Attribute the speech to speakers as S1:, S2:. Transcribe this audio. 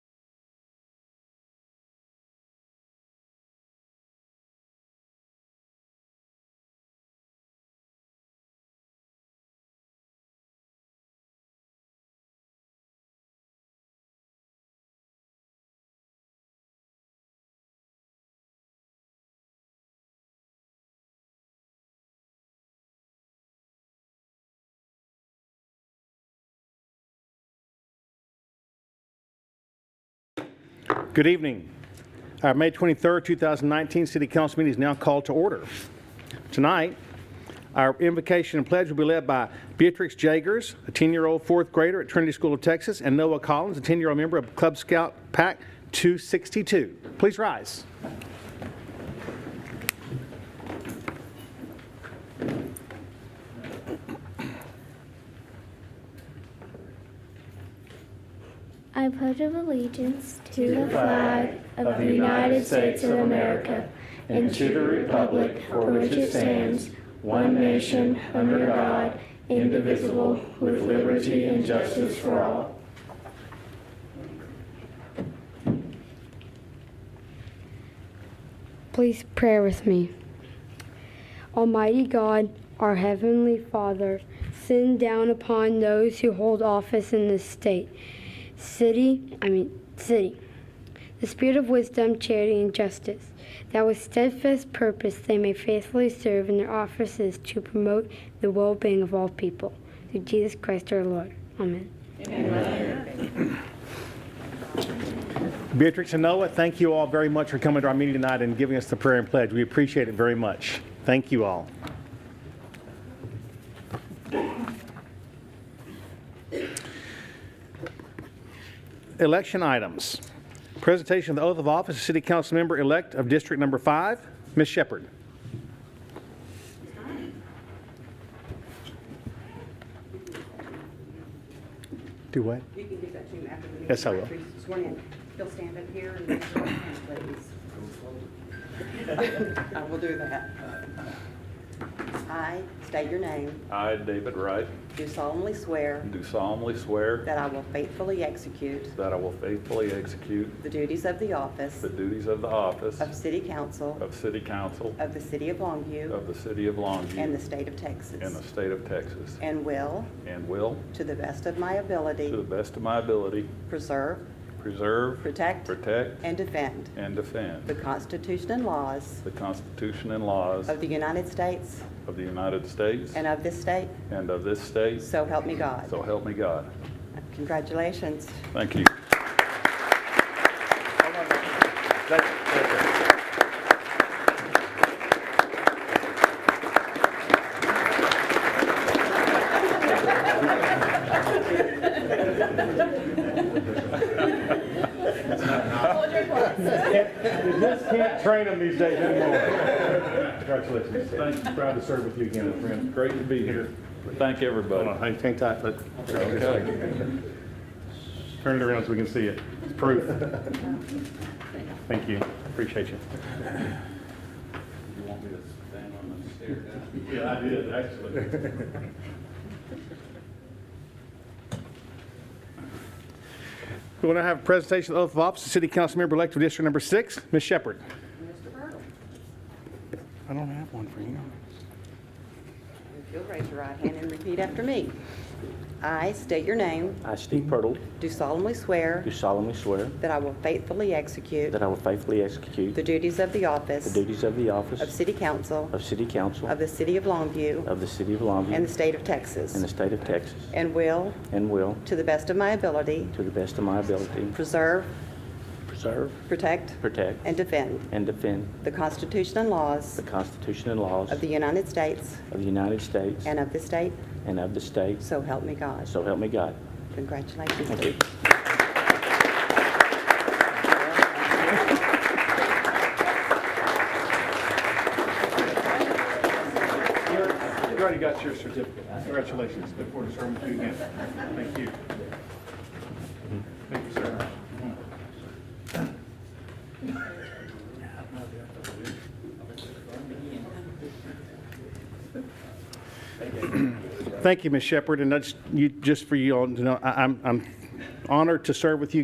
S1: Good evening. Our May 23rd, 2019 City Council meeting is now called to order. Tonight, our invocation and pledge will be led by Beatrix Jagers, a 10-year-old fourth grader at Trinity School of Texas, and Noah Collins, a 10-year-old member of Club Scout Pack 262. Please rise.
S2: I pledge of allegiance to the flag of the United States of America and to the republic for which it stands, one nation, under God, indivisible, with liberty and justice for all.
S3: Please pray with me. Almighty God, our Heavenly Father, send down upon those who hold office in this state, city, I mean, city, the spirit of wisdom, charity, and justice, that with steadfast purpose they may faithfully serve in their offices to promote the well being of all people. Through Jesus Christ our Lord. Amen.
S1: Beatrix and Noah, thank you all very much for coming to our meeting tonight and giving us the prayer and pledge. We appreciate it very much. Thank you all. Election items. Presentation of the oath of office of City Council Member-elect of District Number 5, Ms. Shepherd. Do what?
S4: You can give that to him after the meeting.
S1: Yes, I will.
S4: After he's Sworn in. He'll stand up here and raise your right hand, please. I will do that. I state your name,
S5: I, David Wright,
S4: do solemnly swear
S5: do solemnly swear
S4: that I will faithfully execute
S5: that I will faithfully execute
S4: the duties of the office
S5: the duties of the office
S4: of City Council
S5: of City Council
S4: of the City of Longview
S5: of the City of
S4: and the
S5: Longview
S4: State of
S5: in the
S4: Texas,
S5: state of Texas,
S4: and will,
S5: and will,
S4: to the best of my
S5: to the
S4: ability,
S5: best of my ability,
S4: preserve,
S5: preserve,
S4: protect,
S5: protect,
S4: and defend
S5: and
S4: the
S5: defend
S4: Constitution and laws
S5: the Constitution and laws
S4: of the United States
S5: of the United States
S4: and of this state,
S5: and of this state,
S4: So help me God.
S5: so help me God.
S4: Congratulations.
S5: Thank you.
S1: You just can't train them these days anymore. Congratulations. Thank you. Proud to serve with you again, my friend.
S5: Great to be here. Thank
S1: Hold
S5: everybody.
S1: on, hang hang tight, but
S5: Okay.
S1: turn it around so we can see it. It's proof. Thank you. Appreciate you.
S5: You want me to stand on the stair?
S1: Yeah, I did, actually. We want to have a presentation of the oath of office, of City Council Member-elect of District Number Six, Ms. Shepherd.
S4: Mr. Burtle,
S1: I don't have one for you.
S4: if you'll raise your right hand and repeat after me. I state your name,
S6: I, Steve Pirtle,
S4: do solemnly swear
S6: do solemnly swear
S4: that I will faithfully execute
S6: that I will faithfully execute
S4: the duties of the
S6: the
S4: office
S6: duties of the
S4: of
S6: office
S4: City Council
S6: of City Council
S4: of the City of Longview
S6: of the City of
S4: and
S6: Longview
S4: the State of
S6: in the
S4: Texas,
S6: State of Texas,
S4: and will,
S6: and will,
S4: to the best of my ability,
S6: to the best of my ability,
S4: preserve,
S6: preserve,
S4: protect,
S6: protect,
S4: and defend
S6: and defend
S4: the Constitution and laws
S6: the Constitution and laws
S4: of
S6: of
S4: the United States
S6: the United States
S4: and of this state,
S6: and of the state,
S4: so help me God.
S6: so help me God.
S4: Congratulations.
S6: Thank you.
S1: You already got your certificate. Congratulations. Look forward to serving with you again. Thank you. Thank you, sir. Thank you, Ms. Shepherd, and that's, you, just for you all to know, I- I'm I'm honored to serve with you